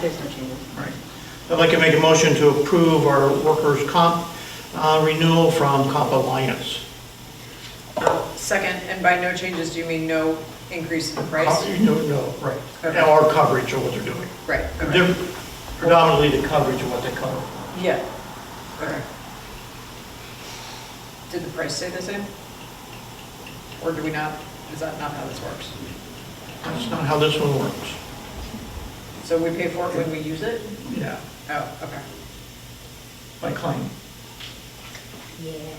There's no changes. Right. I'd like to make a motion to approve our workers' comp uh, renewal from Comp Alliance. Second, and by no changes, do you mean no increase in price? Co- No, no, right. Okay. Our coverage of what they're doing. Right, okay. They're Predominantly the coverage of what they cover. Yeah. Okay. Did the price stay the same? Or do we not, is that not how this works? That's not how this one works. So we pay for it when we use it? Yeah. Oh, okay. By claim. Yeah.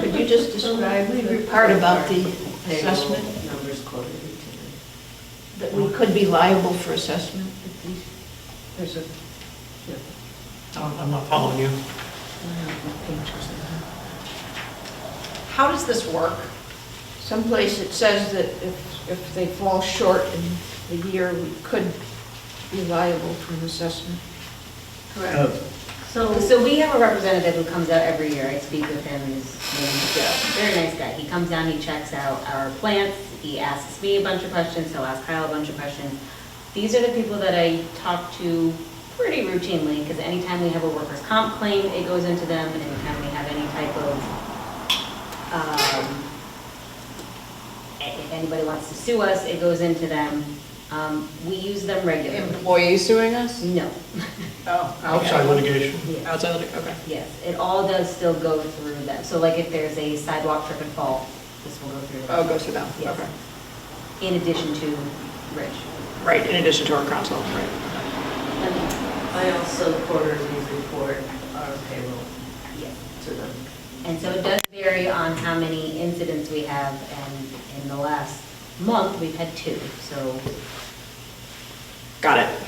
Could you just describe the part about the assessment, Numbers quoted to that we could be liable for assessment? that these- There's a, I'm I'm not following you. How does this work? someplace it says that if, if they fall short in the year, we could be liable for an assessment. Correct. So, so we have a representative who comes out every year, I speak with him, his name is Joe, very nice guy. He comes down, he checks out our plants, he asks me a bunch of questions, he'll ask Kyle a bunch of questions. These are the people that I talk to pretty routinely, because anytime we have a workers' comp claim, it goes into them, and anytime we have any type of, um, if anybody wants to sue us, it goes into them. Um, we use them regularly. Employee suing us? No, Oh. okay. Outside litigation. yeah. Outside, litig- okay. Yes, it all does still go through them. So like if there's a sidewalk trip and fall, this will go through. them. Oh, it goes to them, Yes. okay. In addition to Rich. Right, in addition to our council, right. I also quarterly report our payroll Yes. to them. And so it does vary on how many incidents we have, and in the last month, we've had two, so. Got it.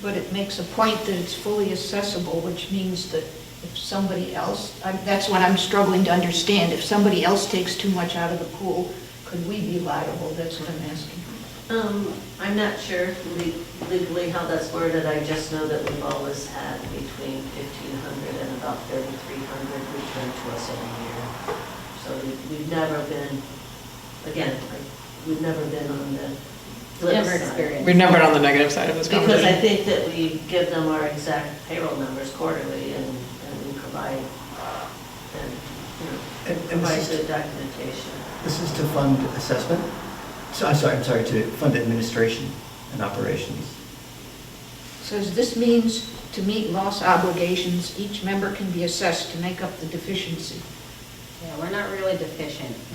But it makes a point that it's fully accessible, which means that if somebody else, I'm- that's what I'm struggling to understand, if somebody else takes too much out of the pool, could we be liable? That's what I'm asking. Um, I'm not sure le- legally how that's worded, I just know that we've always had between 1,500 and about 3,300 returned to us every year. So we- we've never been, again, like, we've never been on the flip Never side. experienced. We've never been on the negative side of this Because I conversation. think that we give them our exact payroll numbers quarterly and, and we provide, and, you know, And- and provide this is- good documentation. This is to fund assessment? So, I'm sorry, I'm sorry, to fund administration and operations. Says this means to meet loss obligations, each member can be assessed to make up the deficiency. Yeah, we're not really deficient.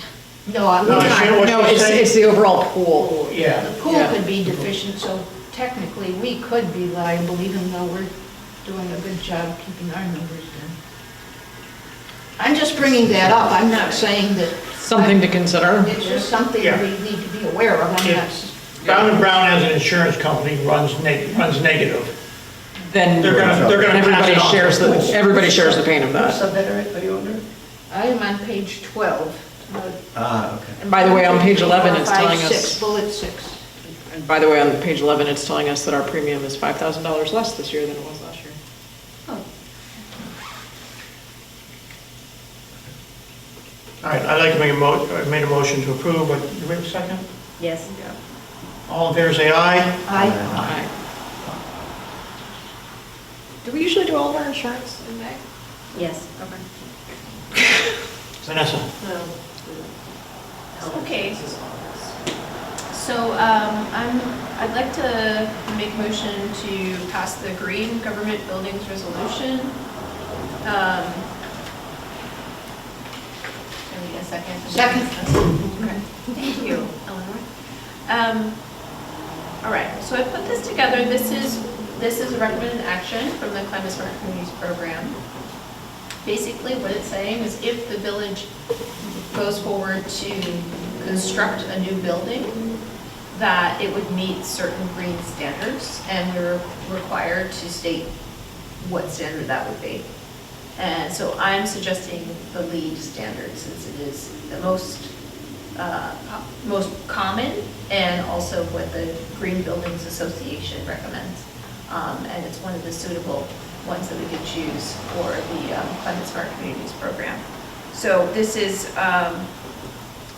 No, I'm No, I see what not. you're No, it's, saying. it's the overall pool. Yeah. The pool Yeah. could be deficient, so technically we could be liable even though we're doing a good job keeping our numbers down. I'm just bringing that up. I'm not saying that. Something to consider. It's just something Yeah. we need to be aware of. I'm not, s- Brown and Brown as an insurance company runs neg, runs negative. Then They're gonna, they're gonna pass everybody it on. shares the, everybody shares the pain of Which that. subheader are you under? I am on page 12. uh, Ah, okay. And by the way, on page 11, it's Five, telling six, us, Bullet six. and by the way, on page 11, it's telling us that our premium is $5,000 less this year than it was last year. Oh, All right, I'd like to make a mo, I made a motion to approve, but you wait a second? yes. All in favor, say aye. I, Aye. Do we usually do all of our insurance in May? Yes. Okay. Vanessa? Well, the- Okay. This is all. So um, I'm, I'd like to make motion to pass the green government buildings resolution. Um, I need a second. Second. Okay. Thank you, Eleanor. Um, All right, so I put this together. This is, this is a recommended action from the Climate Smart Communities Program. Basically, what it's saying is if the village goes forward to construct a new building, that it would meet certain green standards, and we were required to state what standard that would be. And so I'm suggesting the LEED standard, since it is the most, uh, po- most common, and also what the Green Buildings Association recommends. Um, And it's one of the suitable ones that we could choose for the um, Climate Smart Communities Program. So this is, um,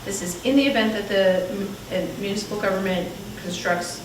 this is in the event that the mu- uh, municipal government constructs